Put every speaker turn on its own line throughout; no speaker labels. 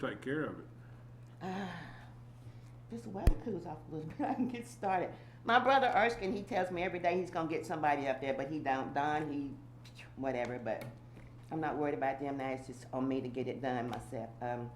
take care of it.
This weather cools off a little bit. I can get started. My brother Erskine, he tells me every day he's gonna get somebody up there, but he don't. Don, he, whatever. But I'm not worried about them now. It's just on me to get it done myself. Um,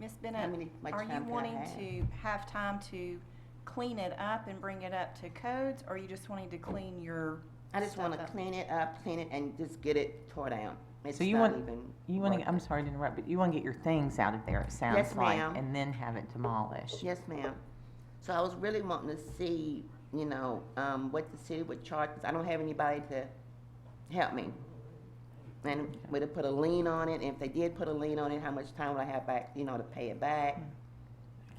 Ms.
How
Bennett,
many- much
uh, are you
time can I
wanting
have?
to have time to clean it up and bring it up to codes, or are you just wanting to clean your?
I just
stuff
want to
up?
clean it up, clean it, and just get it tore down. It's
So you
not
want-
even
You want
worth
to, I'm
it.
sorry to interrupt, but you want to get your things out of there, it
Yes,
sounds like,
ma'am.
and then have it demolished.
Yes, ma'am. So I was really wanting to see, you know, um, what the city would charge. 'cause I don't have anybody to help me. And would it put a lien on it? And if they did put a lien on it, how much time would I have back, you know, to pay it back?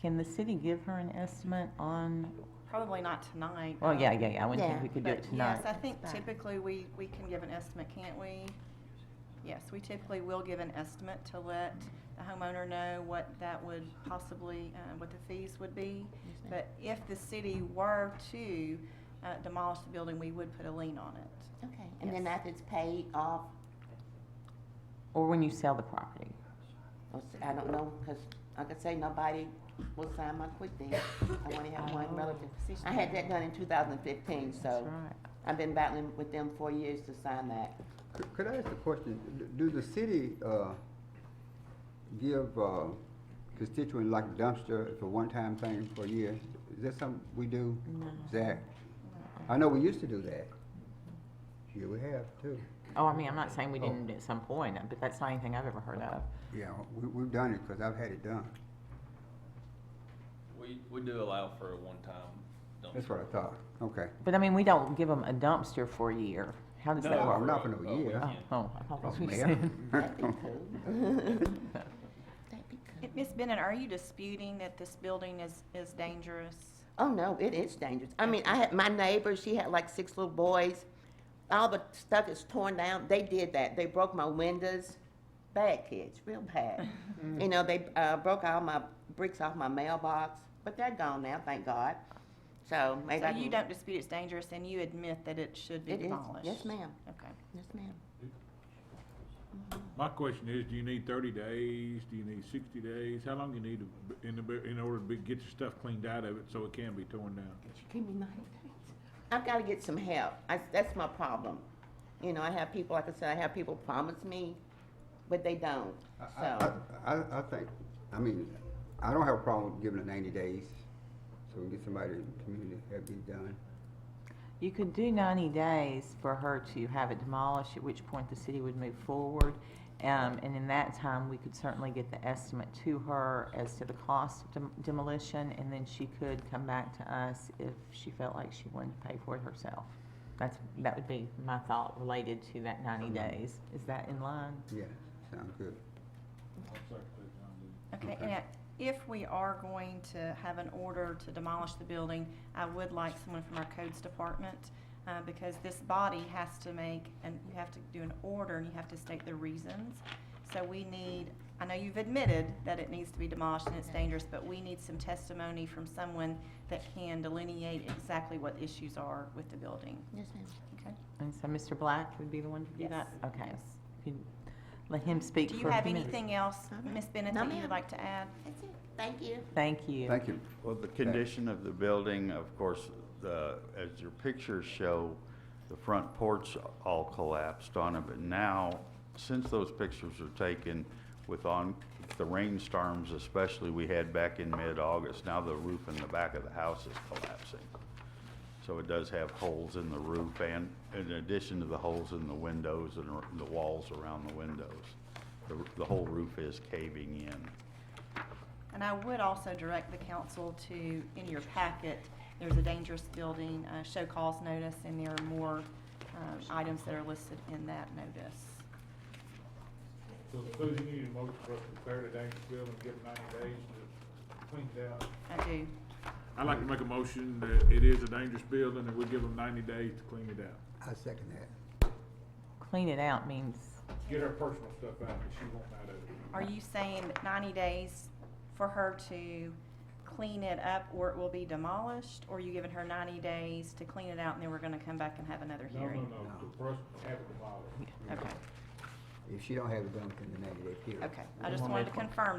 Can the city give her an estimate on,
Probably not tonight.
well, yeah, yeah, yeah, I wouldn't
Yeah,
think we could do it
But yes, I
tonight.
think
That's fine.
typically we, we can give an estimate, can't we? Yes, we typically will give an estimate to let the homeowner know what that would possibly, uh, what the fees would be.
Yes, ma'am.
But if the city were to uh, demolish the building, we would put a lien on it.
Okay, and then
Yes.
after it's paid off,
Or when you sell the property.
or s- I don't know, because I could say nobody will sign my quit deed. I only have one
Oh.
relative. I had that done in two thousand and fifteen,
That's
so
right.
I've been battling with them four years to sign that.
Could- Could I ask a question? Do the city uh, give uh, constituent like dumpster for one-time thing for a year? Is that something we do, Zach? I know we used to do that. Yeah, we have too.
Oh, I mean, I'm not saying we didn't at some point, but that's not anything I've ever heard of.
Yeah, we, we've done it because I've had it done.
We, we do allow for a one-time dumpster.
That's what I thought. Okay.
But I mean, we don't give them a dumpster for a year. How does that
No,
Well,
work?
not for
for
no
a- a
year.
Oh,
weekend.
oh, I thought
Oh,
that's what you
man.
said.
That'd be cool. That'd be cool.
Miss Bennett, are you disputing that this building is, is dangerous?
Oh no, it is dangerous. I mean, I had my neighbor. She had like six little boys. All the stuff is torn down. They did that. They broke my windows. Bad kids, real bad. You know, they uh, broke all my bricks off my mailbox, but they're gone now, thank God. So maybe
So
I
you
can-
don't dispute it's dangerous and you admit that it should be
It is.
demolished?
Yes, ma'am.
Okay.
Yes, ma'am.
My question is, do you need thirty days? Do you need sixty days? How long you need to, b- in the, b- in order to be, get your stuff cleaned out of it so it can be torn down?
She gave me nine days. I've got to get some help. I, that's my problem. You know, I have people. Like I said, I have people promise me, but they don't.
I-
So.
I, I, I think, I mean, I don't have a problem giving it ninety days, so we can get somebody in the community to have it done.
You could do ninety days for her to have it demolished, at which point the city would move forward. Um, and in that time, we could certainly get the estimate to her as to the cost of dem- demolition, and then she could come back to us if she felt like she wanted to pay for it herself. That's, that would be my thought related to that ninety days. Is that in line?
Yeah, sounds good.
Okay, and I- if we are going to have an order to demolish the building, I would like someone from our codes department, uh, because this body has to make, and you have to do an order, and you have to state the reasons. So we need, I know you've admitted that it needs to be demolished and it's dangerous, but we need some testimony from someone that can delineate exactly what the issues are with the building,
Yes, ma'am.
okay?
And so Mr. Black would be the one to do
Yes.
that? Okay.
Yes.
Could let him speak
Do you
for a
have
few minutes.
anything else, Ms. Bennett,
No,
that you
ma'am.
would like to add?
That's it. Thank you.
Thank you.
Thank you.
Well, the condition of the building, of course, the, as your pictures show, the front porch all collapsed on it, but now, since those pictures were taken with on, the rainstorms especially we had back in mid-August, now the roof in the back of the house is collapsing. So it does have holes in the roof and in addition to the holes in the windows and ar- the walls around the windows. The, r- the whole roof is caving in.
And I would also direct the council to, in your packet, there's a dangerous building, uh, show cause notice, and there are more, um, items that are listed in that notice.
So Susan, you need a motion for us to declare the dangerous building, give it ninety days to clean it out.
I do.
I'd like to make a motion that it is a dangerous building and we give them ninety days to clean it out.
I second that.
Clean it out means,
Get her personal stuff out that she won't out of it.
Are you saying that ninety days for her to clean it up or it will be demolished? Or are you giving her ninety days to clean it out and then we're gonna come back and have another
No, no,
hearing?
no, the person have it demolished.
Okay,
If she don't have it done within the ninety day period.
okay. I just wanted to confirm